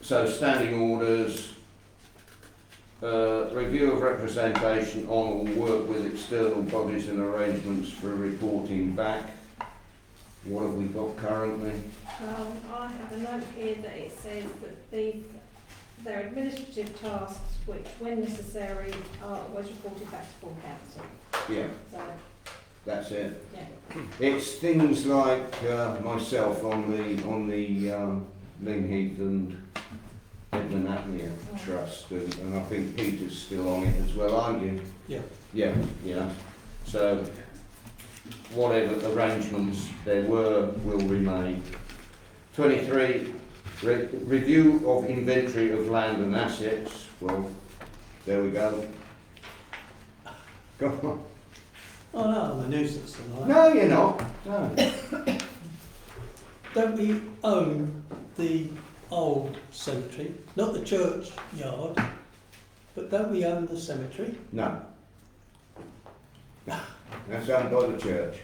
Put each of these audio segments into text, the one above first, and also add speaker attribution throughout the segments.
Speaker 1: So standing orders, uh, review of representation on or work with external bodies and arrangements for reporting back. What have we got currently?
Speaker 2: Well, Um, I have a note here that it says that the, their administrative tasks, which when necessary, are always reported back to full council.
Speaker 1: Yeah,
Speaker 2: So,
Speaker 1: that's it.
Speaker 2: yeah,
Speaker 1: It's things like uh, myself on the on the um, Lingheath and Edmund Apnea Trust, and, and I think Peter's still on it as well, aren't you?
Speaker 3: Yeah.
Speaker 1: Yeah, yeah. So whatever arrangements there were will remain. Twenty-three, re- review of inventory of land and assets. Well, there we go. Go on.
Speaker 3: Oh, no, I'm a nuisance tonight.
Speaker 1: No, you're not. No.
Speaker 3: Don't we own the old cemetery? Not the church yard, but don't we own the cemetery?
Speaker 1: No. That's owned by the church.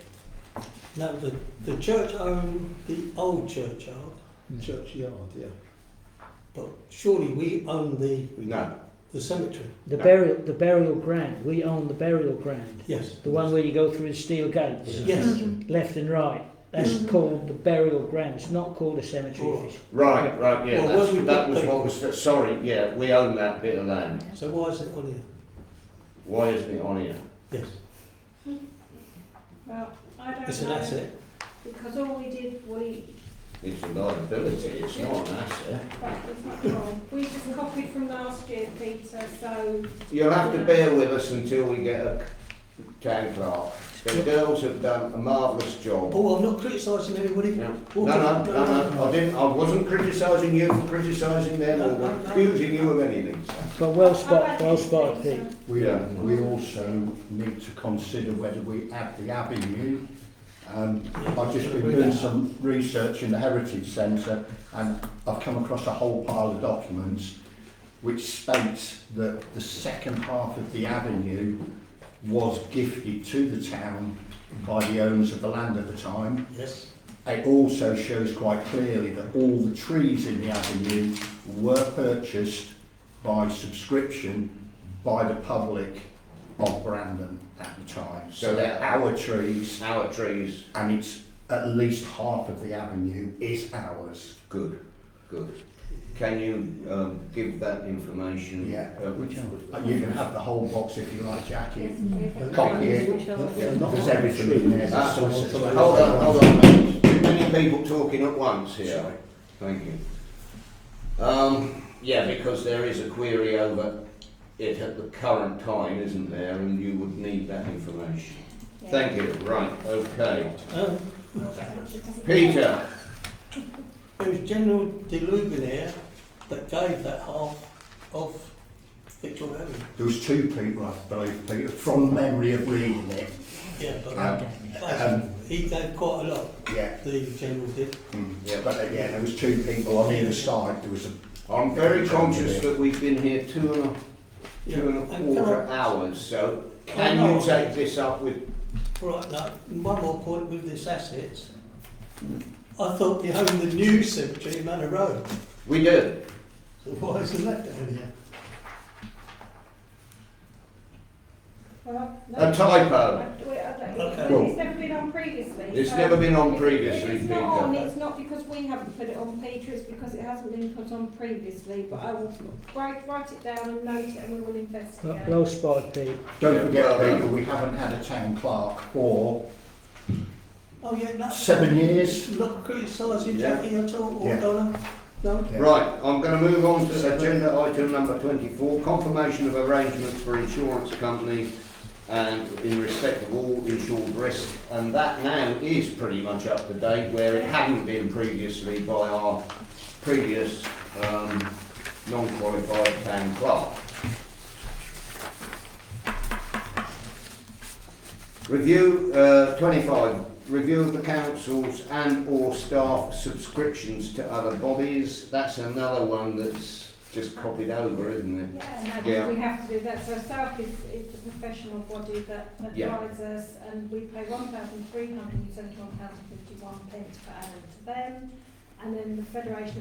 Speaker 3: No, the, the church own the old churchyard,
Speaker 1: Mm.
Speaker 4: Churchyard, yeah.
Speaker 3: but surely we own the,
Speaker 1: No.
Speaker 3: the cemetery.
Speaker 5: The burial, the burial ground. We own the burial ground.
Speaker 3: Yes.
Speaker 5: The one where you go through the steel gates,
Speaker 3: Yes.
Speaker 5: left and right. That's called the burial ground. It's not called a cemetery.
Speaker 3: All
Speaker 5: if it's-
Speaker 1: Right, right, yeah.
Speaker 3: Well,
Speaker 1: that's,
Speaker 3: when we
Speaker 1: that
Speaker 3: put
Speaker 1: was
Speaker 3: the-
Speaker 1: what was. Sorry, yeah, we own that bit of land.
Speaker 3: So why is it on here?
Speaker 1: Why isn't it on here?
Speaker 3: Yes.
Speaker 2: well, I
Speaker 3: It's
Speaker 2: don't
Speaker 3: an
Speaker 2: know,
Speaker 3: asset.
Speaker 2: because all we did, we,
Speaker 1: It's a liability, it's not an asset.
Speaker 2: that was not wrong. We just copied from last year, Peter, so,
Speaker 1: You'll have to bear with us until we get a town clerk. The girls have done a marvellous job.
Speaker 3: Oh, I'm not criticising anybody.
Speaker 1: Yeah. No, no, no, no, I didn't, I wasn't criticising you for criticising them or accusing you of anything, sir.
Speaker 5: But well
Speaker 2: I
Speaker 5: spotted,
Speaker 2: reckon
Speaker 5: well
Speaker 2: it's
Speaker 5: spotted,
Speaker 2: Peter.
Speaker 5: Pete.
Speaker 4: We,
Speaker 1: Yeah.
Speaker 4: we also need to consider whether we add the abbey in. Um, I've just been doing some research in the Heritage Centre and I've come across a whole pile of documents which states that the second half of the avenue was gifted to the town by the owners of the land at the time.
Speaker 3: Yes.
Speaker 4: It also shows quite clearly that all the trees in the avenue were purchased by subscription by the public of Brandon at the time.
Speaker 1: So
Speaker 4: So they're
Speaker 1: that-
Speaker 4: our trees
Speaker 1: Our trees,
Speaker 4: and it's at least half of the avenue is ours.
Speaker 1: Good, good. Can you um, give that information?
Speaker 4: Yeah.
Speaker 1: Uh,
Speaker 4: You can have the whole box if you like, Jackie.
Speaker 2: Yes.
Speaker 4: Copy it. There's everything in there.
Speaker 1: Ah,
Speaker 4: There's solicitors.
Speaker 1: hold on, hold on. mate. Too many people talking at once here. Thank you. Um, yeah, because there is a query over it at the current time, isn't there? And you would need that information.
Speaker 2: yeah.
Speaker 1: Thank you. Right. Okay.
Speaker 3: Um,
Speaker 1: Peter.
Speaker 3: It was General de Lubenair that gave that half of Victor Avenue.
Speaker 4: There was two people, I believe, Peter, from memory of reading it.
Speaker 3: Yeah, but
Speaker 4: Um,
Speaker 3: he gave quite a lot,
Speaker 4: Yeah.
Speaker 3: the general did.
Speaker 4: Mm.
Speaker 1: Yeah.
Speaker 4: But uh, yeah, there was two people on either side. There was a
Speaker 1: I'm very conscious that we've been here two and a, two and a
Speaker 3: And can I-
Speaker 1: quarter hours, so
Speaker 3: I
Speaker 1: can
Speaker 3: know.
Speaker 1: you take this up with
Speaker 3: Right, now, one more point with this assets. I thought they owned the new cemetery in Manor Road,
Speaker 1: We do.
Speaker 3: so why isn't that down here?
Speaker 2: Well, no.
Speaker 1: A typo.
Speaker 3: Okay.
Speaker 2: It's never been on previously.
Speaker 1: It's
Speaker 2: so-
Speaker 1: never been on
Speaker 2: If
Speaker 1: previously,
Speaker 2: It's not on,
Speaker 1: Peter.
Speaker 2: it's not because we haven't put it on, Peter, it's because it hasn't been put on previously, but I will write, write it down and note it and we will
Speaker 5: Well-
Speaker 2: investigate.
Speaker 5: Well spotted, Pete.
Speaker 4: Don't forget, Peter, we haven't had a town clerk for
Speaker 3: Oh, yeah, no.
Speaker 4: seven years.
Speaker 3: Not criticising
Speaker 1: Yeah.
Speaker 3: Jackie at all, or
Speaker 4: Yeah.
Speaker 3: Donna, no?
Speaker 1: Right, I'm going to move on to agenda item number 24, confirmation of arrangements for insurance company and in respect of all insured risk. And that now is pretty much up to date where it hadn't been previously by our previous um, non-qualified town clerk. Review, uh, twenty-five, review of the council's and or staff subscriptions to other bodies, that's another one that's just copied over, isn't it?
Speaker 2: Yeah, and
Speaker 1: Yeah.
Speaker 2: that- we have to do that, so staff is, is the professional body that
Speaker 1: Yeah.
Speaker 2: advises us and we pay one thousand three hundred and seventy-one pounds fifty-one pence per annum to them. And then the Federation